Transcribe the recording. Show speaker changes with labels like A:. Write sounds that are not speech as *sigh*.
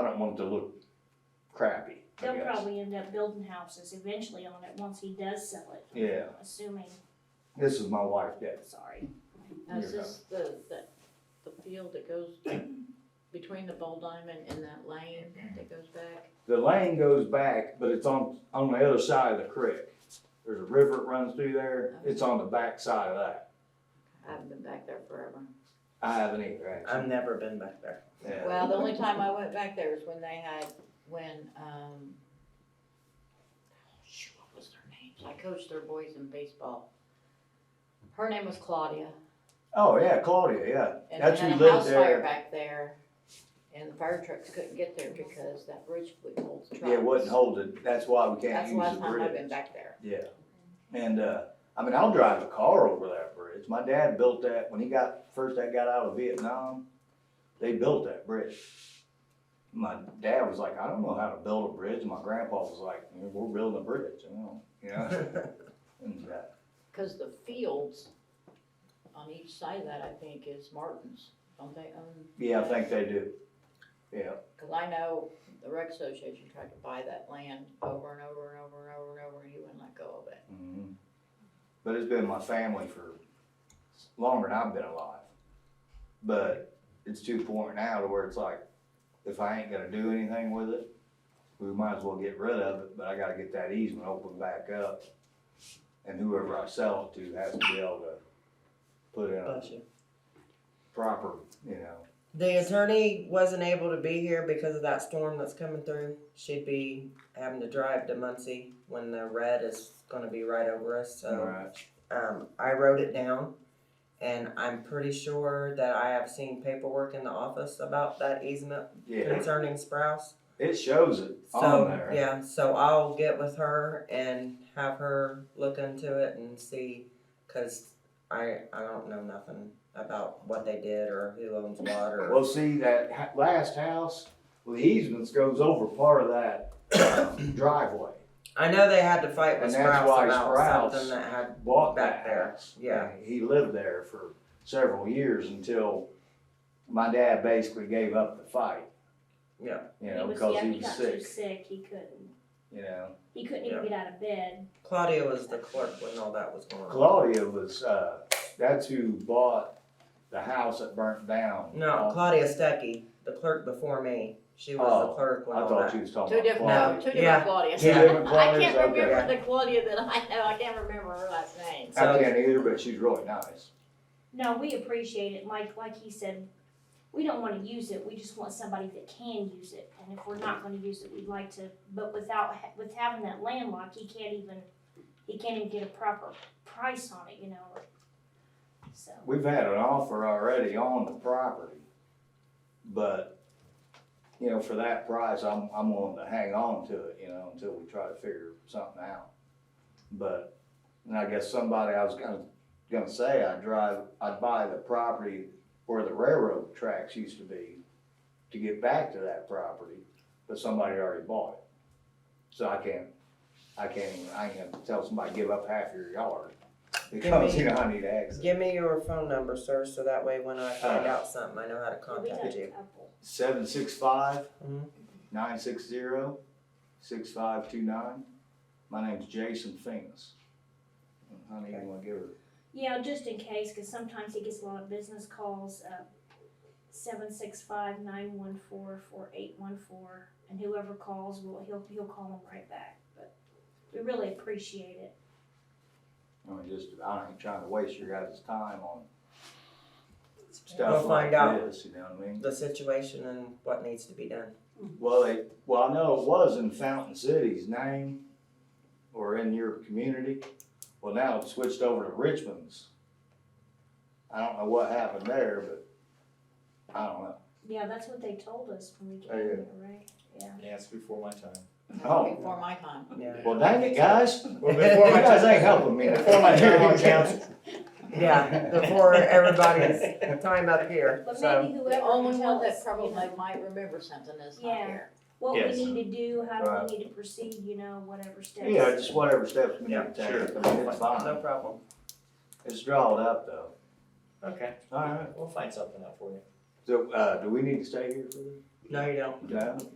A: want it to look crappy, I
B: They'll
A: guess.
B: probably end up building houses eventually on it once he does sell it,
A: Yeah,
B: assuming,
A: this is my wife, Deb.
B: sorry.
A: You're
C: Is this the, the, the field that goes between the bowl diamond and that lane that goes back?
A: The lane goes back, but it's on, on the other side of the creek. There's a river that runs through there, it's on the back side of that.
C: I haven't been back there forever.
A: I haven't either, actually.
D: I've never been back
A: *laughs*
D: there.
A: Yeah.
C: Well, the only time I went back there was when they had, when, um, shoot, what was their names? I coached their boys in baseball. Her name was Claudia.
A: Oh, yeah, Claudia, yeah.
C: And
A: That's
C: they
A: who
C: had a
A: lived
C: house
A: there.
C: fire back there, and the fire trucks couldn't get there because that bridge would hold the trucks.
A: Yeah, it wasn't holding, that's why we can't
C: That's the
A: use
C: last
A: the
C: time I've been
A: bridge.
C: back there.
A: Yeah. And, uh, I mean, I'll drive a car over that bridge. My dad built that, when he got, first I got out of Vietnam, they built that bridge. My dad was like, I don't know how to build a bridge. My grandpa was like, we're building a bridge, you know, *laughs* you know? And, uh,
C: Cause the fields on each side of that, I think, is Martin's, don't they own?
A: Yeah, I
C: that?
A: think they do. Yeah,
C: Cause I know the rec association tried to buy that land over and over and over and over and over, and he wouldn't let go of it.
A: mhm. but it's been my family for longer than I've been alive. But it's to the point now to where it's like, if I ain't gonna do anything with it, we might as well get rid of it, but I gotta get that easement opened back up. And whoever I sell it to has to be able to put in a
D: Bless you.
A: proper, you know,
D: The attorney wasn't able to be here because of that storm that's coming through. She'd be having to drive to Muncie when the red is gonna be right over us, so.
A: right?
D: Um, I wrote it down and I'm pretty sure that I have seen paperwork in the office about that easement
A: Yeah,
D: concerning Sprouse.
A: it shows it on
D: So,
A: there.
D: yeah, so I'll get with her and have her look into it and see, cause I, I don't know nothing about what they did or who owns what or.
A: Well, see, that ha- last house, well, the easements goes over part of that *coughs* um, driveway.
D: I know they had to fight with
A: And that's
D: Sprouse
A: why
D: about
A: Sprouse-
D: something that had,
A: Bought that
D: Back there,
A: house.
D: yeah.
A: And He lived there for several years until my dad basically gave up the fight.
D: Yeah.
A: You know,
B: was-
A: because
B: yeah,
A: he was
B: got too
A: sick,
B: Sick, he couldn't,
A: you know.
B: he couldn't even
D: Yeah.
B: get out of bed.
D: Claudia was the clerk when all that was going on.
A: Claudia was, uh, that's who bought the house that burnt down.
D: No, Claudia Stecky, the clerk before me, she was
A: Oh,
D: the clerk when
A: I
D: all
A: thought you
D: that.
A: was talking
C: Two
A: about
C: different, no,
A: Claudia.
C: two
D: Yeah.
C: different Claudias.
A: Two different
C: *laughs* I
A: Claudias,
C: can't
A: okay.
C: remember the Claudia that I know, I can't remember her last name.
A: I
D: So-
A: can't either, but she's really nice.
B: No, we appreciate it, Mike, like he said, we don't wanna use it, we just want somebody that can use it. And if we're not gonna use it, we'd like to, but without, ha- with having that landlocked, he can't even, he can't even get a proper price on it, you know? So,
A: We've had an offer already on the property, but, you know, for that price, I'm, I'm willing to hang on to it, you know, until we try to figure something out. But, and I guess somebody, I was gonna, gonna say, I'd drive, I'd buy the property where the railroad tracks used to be to get back to that property, but somebody already bought it. So I can't, I can't, even- I ain't gonna tell somebody, give up half your yard, because, you know, I need access.
D: Give me your phone number, sir, so that way when I
A: Uh.
D: find out something, I know how to
B: we got
D: contact
B: a
D: you.
B: couple.
A: seven six five
D: Mhm.
A: nine six zero six five two nine. My name's Jason Fingus. I don't even want to give her.
B: Yeah, just in case, because sometimes he gets a lot of business calls, uh, seven six five nine one four four eight one four, and whoever calls, will he'll, he'll call him right back, but we really appreciate it.
A: I mean, just I ain't trying to waste your guys' time on
D: We'll
A: stuff like
D: find out.
A: this. You know what I mean?
D: The situation and what needs to be done.
A: Well, they, well, I know it was in Fountain City's name or in your community. Well, now it's switched over to Richmond's. I don't know what happened there, but I don't know.
B: Yeah, that's what they told us when we came
A: Oh, yeah.
B: here, right? Yeah.
E: Yeah, it's before my time.
A: Oh.
C: Before my time.
D: Yeah.
A: Well, dang it, guys.
E: Well, *laughs* before
A: you
E: my
A: guys ain't
E: time,
A: helping me.
E: before my
A: *laughs*
E: time on council.
D: Yeah, before everybody's time up here.
B: But
D: So
B: maybe
C: The
B: whoever
C: only
B: can tell
C: one
B: us,
C: that
B: you
C: probably
B: know,
C: might remember something is not
B: Yeah.
C: here.
B: what we
E: Yes.
B: need to do, how
A: Right.
B: do we need to proceed, you know, whatever steps.
A: Yeah, just whatever steps we need to
E: Yeah, sure.
A: take. I mean, it's
D: no
A: fine.
D: problem.
A: It's drawed up though.
E: *laughs* Okay,
A: All right.
E: we'll find something out for you.
A: So, uh, do we need to stay here for this?
D: No, you don't.
A: No?